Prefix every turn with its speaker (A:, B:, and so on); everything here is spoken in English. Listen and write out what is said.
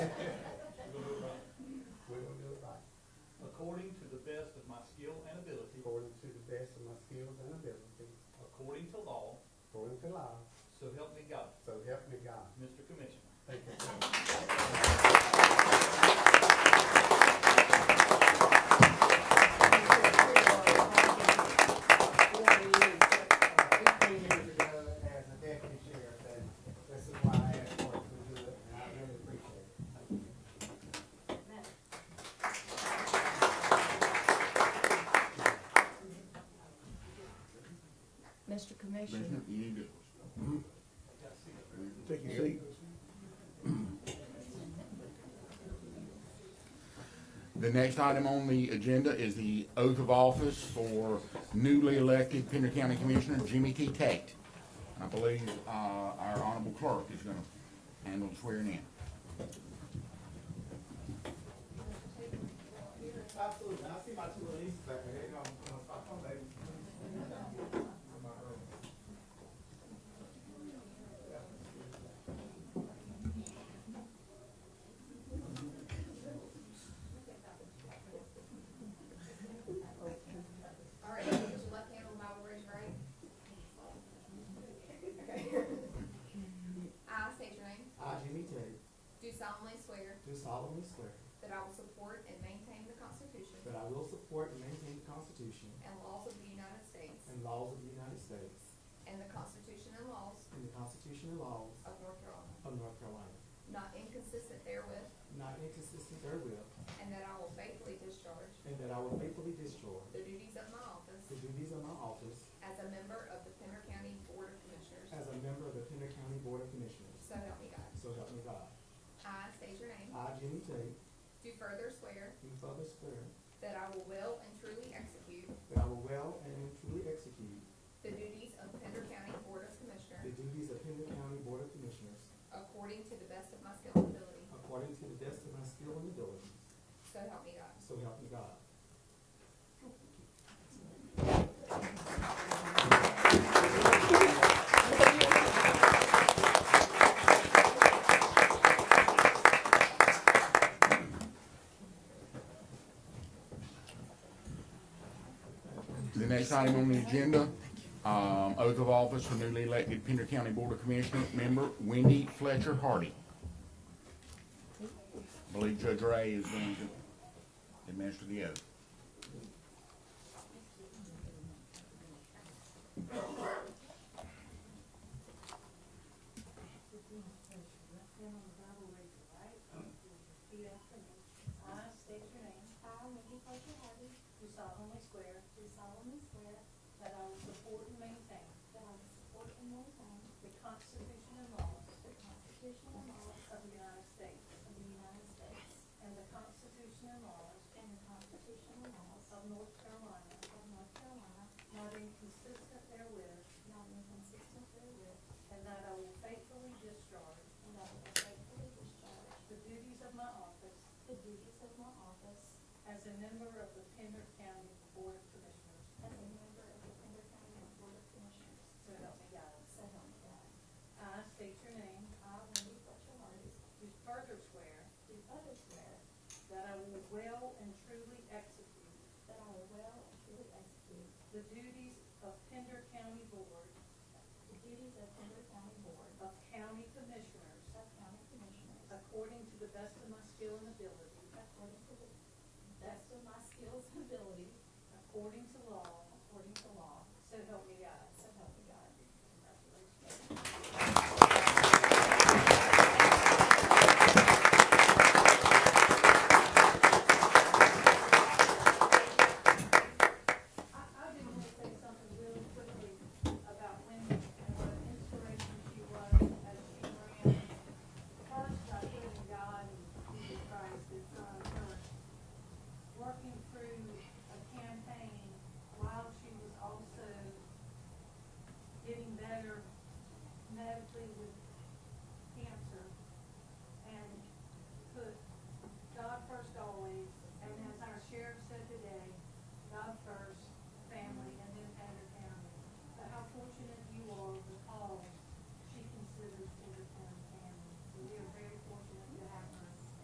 A: The next item on the agenda is the oath of office for newly elected Pender County Commissioner Jimmy T. Tate. I believe, uh, our honorable clerk is gonna handle the swearing in.
B: Absolutely. I see my two little nieces back there. Hey, um, stop on, baby.
C: All right, put your left hand on the Bible, raise your right. I state your name,
B: I, Jimmy Terry,
C: do solemnly swear
B: do solemnly swear
C: that I will support and maintain the Constitution
B: that I will support and maintain the Constitution
C: and laws of the United States
B: and laws of the United States
C: and the Constitution and laws
B: and the Constitution and laws
C: of North Carolina,
B: of North Carolina,
C: not inconsistent therewith,
B: not inconsistent therewith,
C: and that I will faithfully discharge
B: and that I will faithfully discharge
C: the duties of my
B: the
C: office
B: duties of my office
C: as a member of the Pender County Board of Commissioners.
B: as a member of the Pender County Board of Commissioners.
C: So help me God.
B: So help me God.
C: I state your name,
B: I, Jimmy Terry,
C: do further swear
B: do further swear
C: that I will well and truly execute
B: that I will well and truly execute
C: The duties of Pender County Board of
B: the
C: Commissioners
B: duties of Pender County Board of Commissioners
C: according to the best of my skill and ability,
B: according to the best of my skill and ability.
C: so help me God.
B: So help me God.
A: The next item on the agenda, um, oath of office for newly elected Pender County Board of Commissioner member Wendy Fletcher Hardy. I Believe Judge Ray is going to administer the oath.
D: I state your name.
E: I, Wendy Fletcher Harvey,
D: Do solemnly swear
E: do solemnly swear
D: that I will support and maintain
E: that I will support and maintain
D: the Constitution and laws
E: the Constitution and laws
D: of the United States
E: of the United States
D: and the Constitution and laws
E: and the Constitution and laws
D: of North Carolina,
E: of North Carolina,
D: not inconsistent therewith,
E: not inconsistent therewith,
D: and that I will faithfully discharge
E: and that I will faithfully discharge
D: the duties of my office
E: the duties of my office
D: as a member of the Pender County Board of Commissioners.
E: as a member of the Pender County Board of Commissioners.
D: So help me God.
E: So help me God.
D: I state your name.
E: I, Wendy Fletcher Hardy,
D: Do further swear
E: do further swear
D: that I will well and truly execute
E: that I will well and truly execute
D: the duties of Pender County Board
E: the duties of Pender County Board
D: of County Commissioners
E: of County Commissioners
D: according to the best of my skill and ability,
E: According to the best of my skills and ability,
D: according to